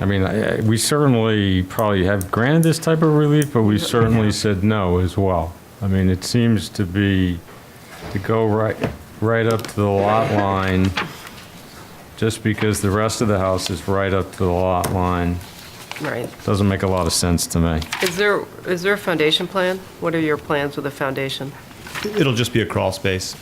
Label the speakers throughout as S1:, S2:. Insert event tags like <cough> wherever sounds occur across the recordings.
S1: I mean, I- I- we certainly probably have granted this type of relief, but we certainly said no as well. I mean, it seems to be, to go right, right up to the lot line, just because the rest of the house is right up to the lot line,
S2: Right.
S1: doesn't make a lot of sense to me.
S2: Is there, is there a foundation plan? What are your plans with a foundation?
S3: It'll just be a crawl space.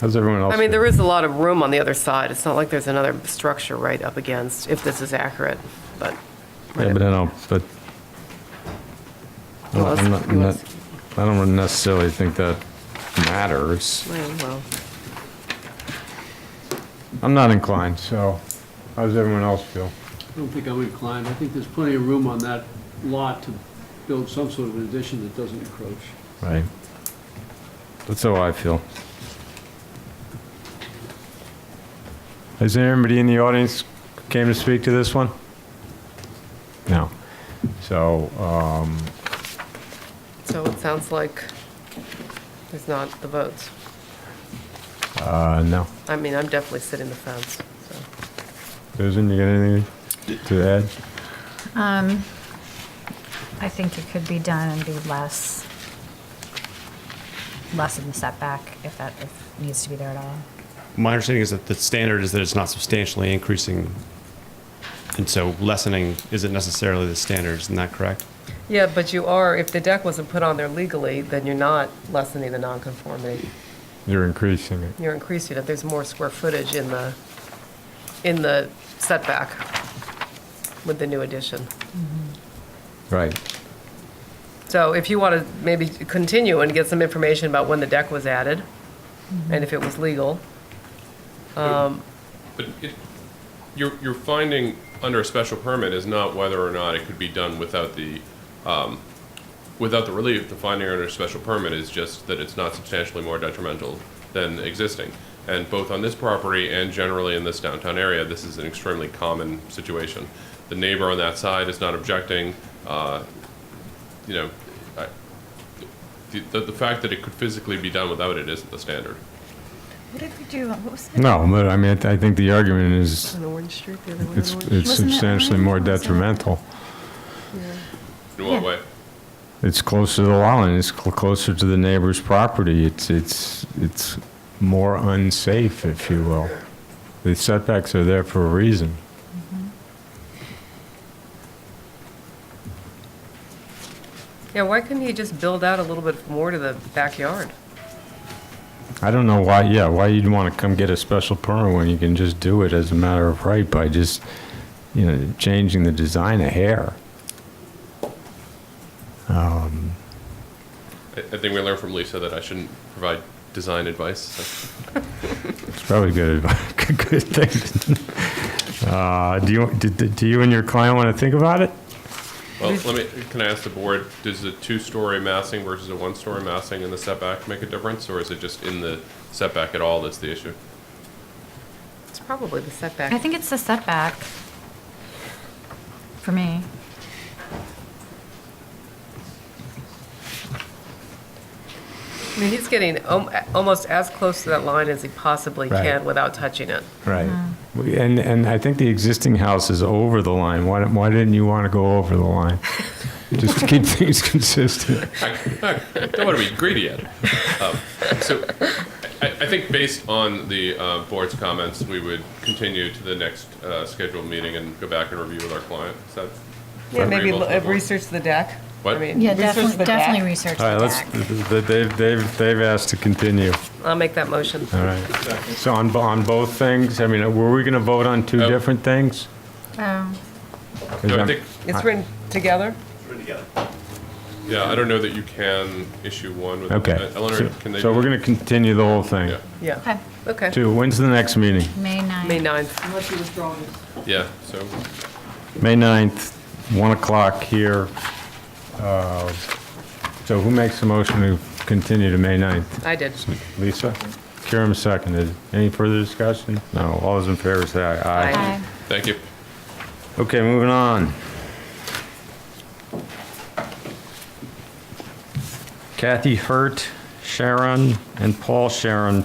S1: How's everyone else?
S2: I mean, there is a lot of room on the other side. It's not like there's another structure right up against, if this is accurate, but.
S1: Yeah, but I don't, but. I'm not- I'm not- I'm not- I don't necessarily think that matters.
S2: Well,
S1: I'm not inclined, so how does everyone else feel?
S4: I don't think I'm inclined. I think there's plenty of room on that lot to build some sort of an addition that doesn't encroach.
S1: Right. That's how I feel. Is there anybody in the audience came to speak to this one? No. So, um,
S2: So it sounds like there's not the votes.
S1: uh, no.
S2: I mean, I'm definitely sitting the fence, so.
S1: Susan, you got anything to add?
S5: Um, I think it could be done and be less, less of a setback if that, if needs to be there at all.
S3: My understanding is that the standard is that it's not substantially increasing, and so lessening isn't necessarily the standard, isn't that correct?
S2: Yeah, but you are, if the deck wasn't put on there legally, then you're not lessening the nonconformity.
S1: You're increasing it.
S2: You're increasing it. There's more square footage in the, in the setback with the new addition.
S1: Right.
S2: So if you want to maybe continue and get some information about when the deck was added and if it was legal.
S6: But it, your, your finding under a special permit is not whether or not it could be done without the, um, without the relief. The finding under a special permit is just that it's not substantially more detrimental than existing. And both on this property and generally in this downtown area, this is an extremely common situation. The neighbor on that side is not objecting, uh, you know, I, the, the the fact that it could physically be done without it isn't the standard.
S5: What did we do? What was that?
S1: No, but I mean, I th- I think the argument is
S2: On Orange Street, the other one
S1: it's it's
S5: Wasn't that
S1: substantially
S5: mine?
S1: more
S5: What was that?
S1: detrimental.
S6: In what
S5: Yeah.
S6: way?
S1: It's closer to the lot line, it's cl- closer to the neighbor's property, it's, it's, it's more unsafe, if you will. The setbacks are there for a reason.
S2: Yeah, why couldn't you just build out a little bit more to the backyard?
S1: I don't know why, yeah, why you'd want to come get a special permit when you can just do it as a matter of right by just, you know, changing the design a hair.
S6: I, I think we learned from Lisa that I shouldn't provide design advice. so.
S1: It's probably good, advi- <laughs> good thing. Uh, Do you, do- do do you and your client want to think about it?
S6: Well, let me, can I ask the board, does a two-story massing versus a one-story massing in the setback make a difference? Or is it just in the setback at all that's the issue?
S2: It's probably the setback.
S5: I think it's a setback for me.
S2: I mean, he's getting om- almost as close to that line as he possibly
S1: Right.
S2: can without touching it.
S1: Right. And, and I think the existing house is over the line. Why, why didn't you want to go over the line? Just to keep things consistent.
S6: I I don't want to be greedy yet. Um, So I, I think based on the uh, board's comments, we would continue to the next uh, scheduled meeting and go back and review with our client. Is that?
S2: Yeah, maybe
S6: agreeable to the
S2: l-
S6: board?
S2: research the deck.
S6: What?
S2: I mean,
S5: Yeah,
S2: research
S5: definitely,
S2: the deck.
S5: definitely research
S1: All right,
S5: the
S1: let's,
S5: deck.
S1: they- they've, they've, they've asked to continue.
S2: I'll make that motion.
S1: All right. So on, bo- on both things, I mean, were we going to vote on two
S6: Oh.
S1: different things?
S5: Oh,
S1: 'Cause
S6: No, I
S1: I'm-
S6: think-
S2: It's written together?
S6: Yeah, I don't know that you can issue one with.
S1: Okay.
S6: Eleanor, can they?
S1: So- So
S6: do
S1: we're
S6: that?
S1: going to continue the whole thing.
S6: Yeah.
S2: Yeah.
S5: okay,
S2: Okay.
S1: Two, when's the next meeting?
S5: May 9th.
S2: May 9th.
S4: Unless you withdraw this.
S6: Yeah, so
S1: May 9th, 1 o'clock here. Uh, So who makes the motion to continue to May 9th?
S2: I did.
S1: Lisa? Kiram seconded. Any further discussion? No. All those in favor say aye.
S2: Aye.
S5: Aye.
S6: thank you.
S1: Okay, moving on. Kathy Hurt, Sharon, and Paul Sharon